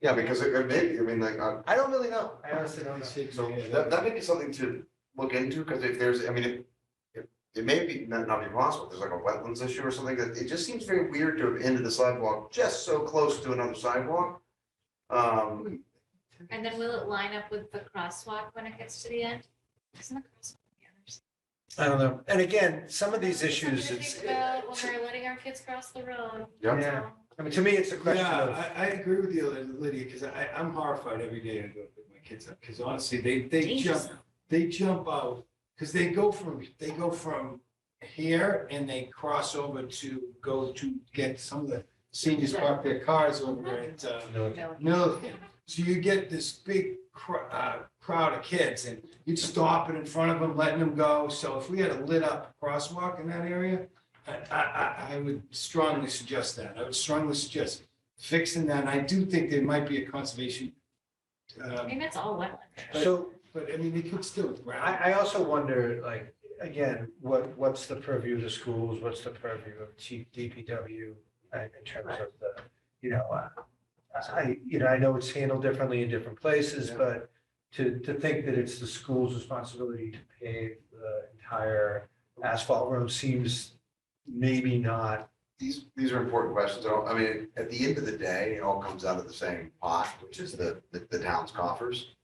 Yeah, because it, it may, I mean, like, I, I don't really know. I honestly don't know. So that, that may be something to look into, because if there's, I mean, it, it, it may be, not, not be possible, there's like a wetlands issue or something, that it just seems very weird to have ended the sidewalk just so close to another sidewalk. Um, And then will it line up with the crosswalk when it gets to the end? Isn't the crosswalk on the other side? I don't know. And again, some of these That's something issues, to it's, think about uh, When we're letting our kids cross the road. yeah, Yeah. So, I mean, to me, it's a question of, Yeah, I, I agree with you, Lydia, because I, I'm horrified every day I go pick my kids up, because honestly, they, they jump, dangerous. they jump out, because they go from, they go from here and they cross over to go to get some of the seniors park their cars over at, uh, No. Milliken. So you get this big cr- uh, crowd of kids and you'd stop it in front of them, letting them go. So if we had a lit up crosswalk in that area, I, I, I- I would strongly suggest that. I would strongly suggest fixing that. And I do think there might be a conservation. I uh, mean, that's all wetland. so But I mean, they could still. ground I, I also wonder, like, again, what, what's the purview of the schools? What's the purview of chief DPW uh, in terms of the, you know, uh, I, you know, I know it's handled differently in different places, Yeah. but to, to think that it's the school's responsibility to pave the entire asphalt road seems maybe not. these, these are important questions, I don't- I mean, at the end of the day, it all comes out of the same pot, which is the, the, the town's coffers.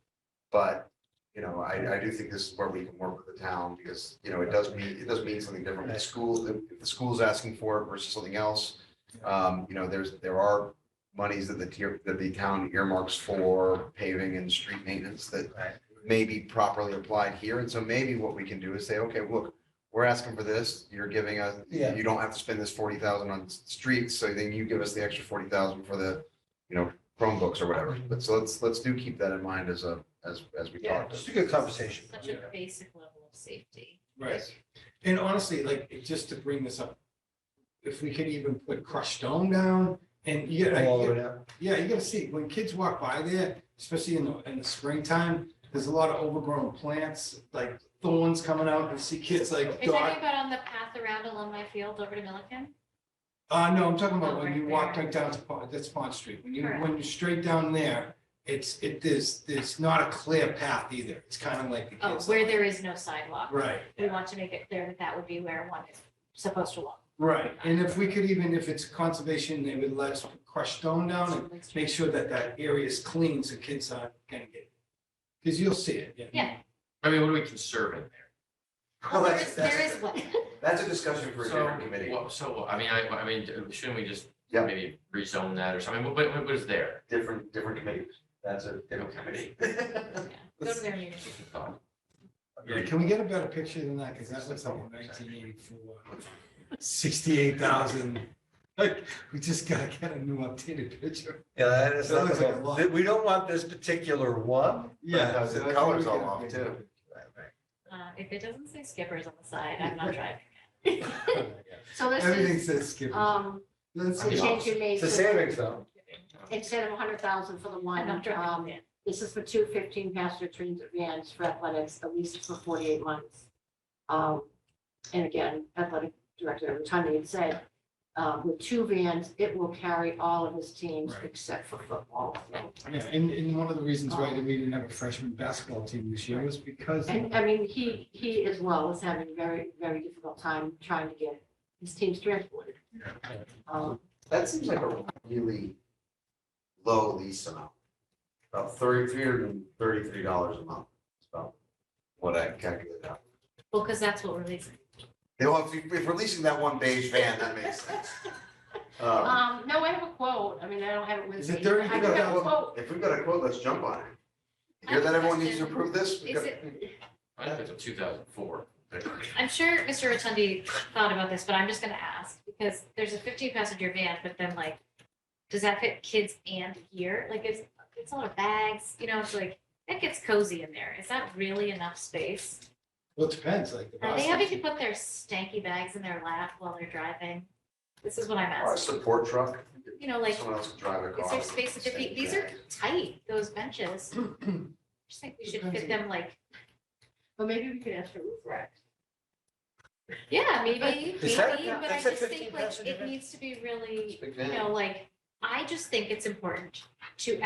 But, you know, I, I do think this is where we can work with the town, because, you know, it does mean, it does mean something different with the school, if the school's asking for it versus something else. Um, you know, there's, there are monies that the tier, that the town earmarks for paving and street maintenance that Right. may be properly applied here, and so maybe what we can do is say, okay, look, we're asking for this, you're giving us, Yeah. you don't have to spend this forty thousand on s- streets, so then you give us the extra forty thousand for the, you know, Chromebooks or whatever, Mm-hmm. but so let's, let's do keep that in mind as a, as, as we talk. Just a good conversation. Such a basic level of safety. Right. And honestly, like, it- just to bring this up, if we could even put crushed stone down and you get. All the way down. Yeah, you gotta see, when kids walk by there, especially in the, in the springtime, there's a lot of overgrown plants, like thorns coming out, and see kids Are like you talking dog. about on the path around alumni field over to Milliken? Uh, no, I'm talking about Oh, when right you walk there. right down to Pond, that's Pond Street, when you, Correct. when you're straight down there, it's, it, there's, there's not a clear path either, it's kind of like the Oh, kids. where there is no sidewalk. Right, We want to make it clear that that would be where one is supposed to walk. right, and if we could even, if it's conservation, they would let us crush stone down and make sure that that area is clean, so kids aren't gonna get. Cause you'll see it, yeah. Yeah. I mean, what do we conserve in there? Well, There that's- is, there that's- is one. That's a discussion for a So, different committee, what- So, I mean, I, I mean, shouldn't we just Yeah. maybe rezone that or something? What, what, what is there? different, different committees, that's a different committee. Okay. Go to their meeting. Yeah, can we get a better picture than that? Because that looks like a nineteen eighty-four, sixty-eight thousand. Like, we just gotta get a new updated picture. Yeah, that is That not looks the- like a lot. We don't want this particular one. Yeah, so the that's color's what we all gotta off, too. do. Uh, if it doesn't say Skippers on the side, I'm not driving. So this Everything is, says skip. um, That's I mean, it. change you made It's a to, savings though. instead of a hundred thousand for the I'm one, not driving. um, yeah. this is for two fifteen passenger transit vans for athletics, at least for forty-eight months. Um, and again, athletic director, Tanya had said, uh, with two vans, it will carry all of his teams Right. except for football. Yeah, and, and one of the reasons why we didn't have a freshman basketball team this year was because. And I mean, he, he as well is having a very, very difficult time trying to get his teams transported. Um, That seems like a really low lease amount. About thirty, three hundred and thirty-three dollars a month, is about what I calculated out. Well, because that's what we're leasing. They want, if if we're leasing that one beige van, that makes sense. Um, Um, no, I have a quote. I mean, I don't have it with me. Is it thirty? I do have a quote. If we've got a quote, let's jump on it. I Hear have that a everyone needs to question. approve this? We've Is got- it, I think it's a two thousand four. I'm sure Mr. Rotundi thought about this, but I'm just gonna ask, because there's a fifteen passenger van, but then like, does that fit kids and gear? Like, it's, it's a lot of bags, you know, it's like, that gets cozy in there. Is that really enough space? Well, it depends, like. the Are they basketball having to team. put their stanky bags in their lap while they're driving? This is what I'm Or a asking. support truck, You know, like, someone else can drive a car. is there space at fifty? These are tight, those benches. Just think we should fit them like, But maybe we could ask for roof racks. yeah, maybe, Is that- maybe, but I that's a just think 15 like passenger it van? needs to be really Big van. you know, like, I just think it's important to